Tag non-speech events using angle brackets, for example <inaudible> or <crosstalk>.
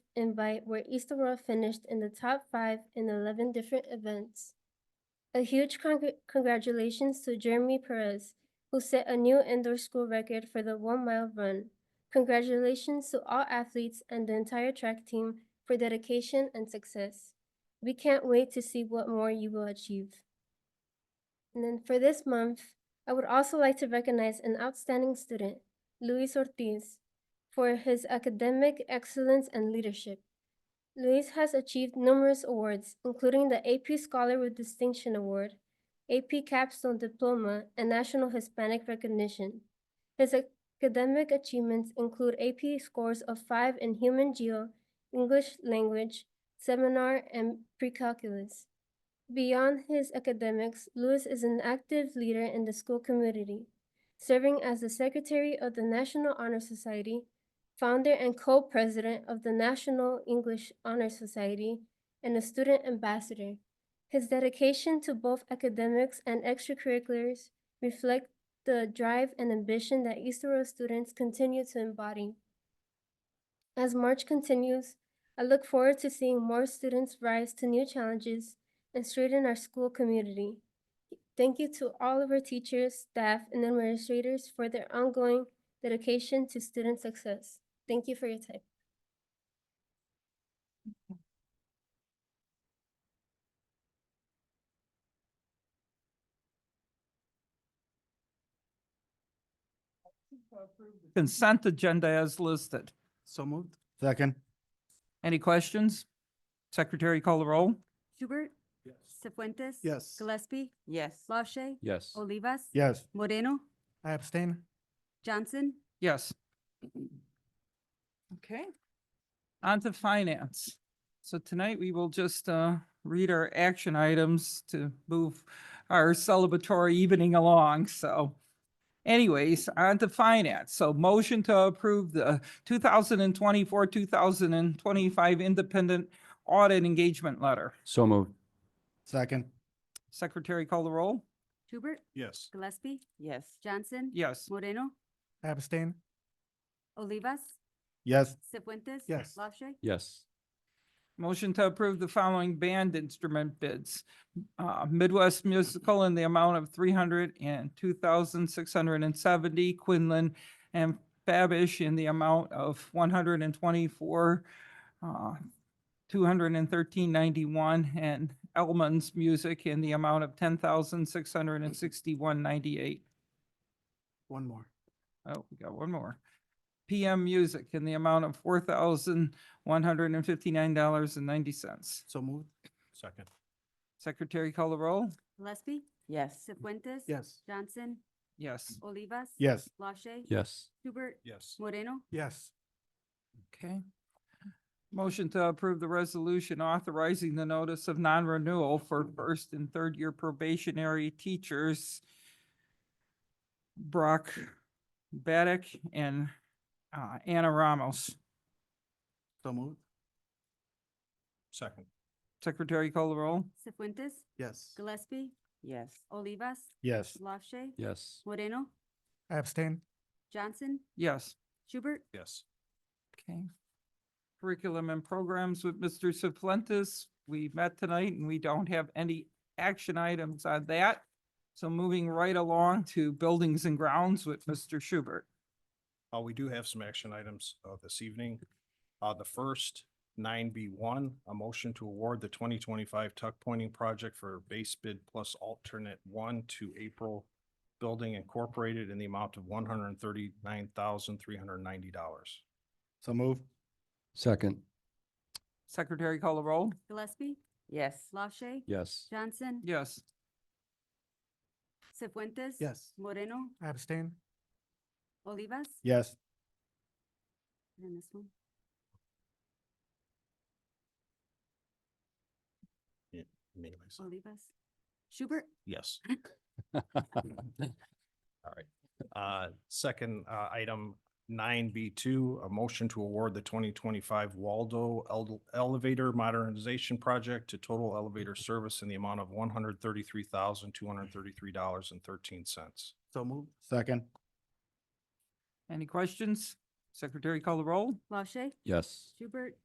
invite where Easter World finished in the top five in 11 different events. A huge congr- congratulations to Jeremy Perez, who set a new indoor school record for the one mile run. Congratulations to all athletes and the entire track team for dedication and success. We can't wait to see what more you will achieve. And then for this month, I would also like to recognize an outstanding student, Luis Ortiz, for his academic excellence and leadership. Luis has achieved numerous awards, including the AP Scholar with Distinction Award, AP Capstone Diploma, and National Hispanic Recognition. His academic achievements include AP scores of 5 in Human Geo, English Language, Seminar, and Precalculus. Beyond his academics, Lewis is an active leader in the school community, serving as the secretary of the National Honor Society, founder and co-president of the National English Honor Society, and a student ambassador. His dedication to both academics and extracurriculars reflect the drive and ambition that Easter Road students continue to embody. As March continues, I look forward to seeing more students rise to new challenges and strengthen our school community. Thank you to all of our teachers, staff, and administrators for their ongoing dedication to student success. Thank you for your time. Consent agenda as listed. So moved. Second. Any questions? Secretary call the roll. Hubert. Yes. Cefuentes. Yes. Gillespie. Yes. LaShay. Yes. Olivas. Yes. Moreno. I abstain. Johnson. Yes. Okay. On to finance. So tonight we will just uh, read our action items to move our celebratory evening along, so. Anyways, on to finance. So motion to approve the two thousand and twenty-four, two thousand and twenty-five independent audit engagement letter. So moved. Second. Secretary call the roll? Hubert. Yes. Gillespie. Yes. Johnson. Yes. Moreno. I abstain. Olivas. Yes. Cefuentes. Yes. LaShay. Yes. Motion to approve the following band instrument bids. Uh, Midwest Musical in the amount of three hundred and two thousand six hundred and seventy, Quinlan and Fabish in the amount of one hundred and twenty-four, uh, two hundred and thirteen ninety-one, and Elman's Music in the amount of ten thousand six hundred and sixty-one ninety-eight. One more. Oh, we got one more. PM Music in the amount of four thousand one hundred and fifty-nine dollars and ninety cents. So moved. Second. Secretary call the roll? Gillespie. Yes. Cefuentes. Yes. Johnson. Yes. Olivas. Yes. LaShay. Yes. Hubert. Yes. Moreno. Yes. Okay. Motion to approve the resolution authorizing the notice of non-renewal for first and third year probationary teachers Brock Baddick and uh, Anna Ramos. So moved. Second. Secretary call the roll? Cefuentes. Yes. Gillespie. Yes. Olivas. Yes. LaShay. Yes. Moreno. I abstain. Johnson. Yes. Hubert. Yes. Okay. Curriculum and programs with Mr. Suplentis. We met tonight and we don't have any action items on that. So moving right along to buildings and grounds with Mr. Schubert. Uh, we do have some action items, uh, this evening. Uh, the first, nine B one, a motion to award the twenty twenty-five tuck pointing project for base bid plus alternate one to April Building Incorporated in the amount of one hundred and thirty-nine thousand, three hundred and ninety dollars. So move. Second. Secretary call the roll? Gillespie. Yes. LaShay. Yes. <laughs> Johnson. Yes. Cefuentes. Yes. Moreno. I abstain. Olivas. Yes. And then this one. Anyways, Olivas. Schubert. yes. All right. Uh, Second uh, item, nine B two, a motion to award the twenty twenty-five Waldo Ele- Elevator Modernization Project to Total Elevator Service in the amount of one hundred thirty-three thousand, two hundred thirty-three dollars and thirteen cents. So moved. Second. Any questions? Secretary call the roll? LaShay. Yes. Schubert.